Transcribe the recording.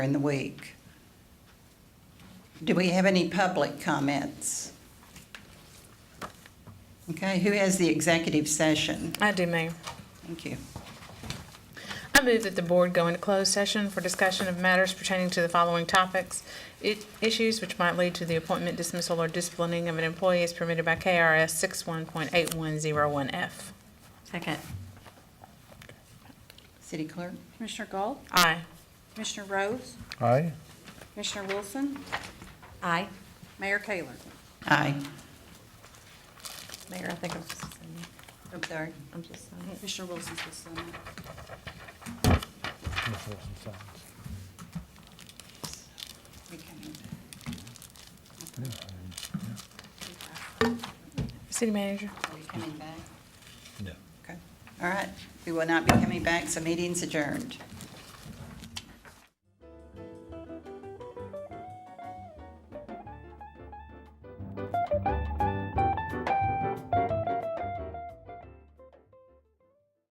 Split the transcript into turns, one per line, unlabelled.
in the week. Do we have any public comments? Okay, who has the executive session?
I do, Mayor.
Thank you.
I move that the board go into closed session for discussion of matters pertaining to the following topics. i- Issues which might lead to the appointment dismissal or disciplining of an employee as permitted by KRS 61.8101F.
Second.
City Clerk?
Commissioner Galt,
Aye.
Commissioner Rose,
Aye.
Commissioner Wilson,
Aye.
Mayor Taylor.
Aye.
Mayor, I think I'm just, signing.
I'm sorry.
I'm just. signing.
Commissioner Wilson's the son.
Miss Wilson signs.
We can-
City Manager?
Are we coming back? No. Okay, all right. We will not be coming back, so meeting's adjourned.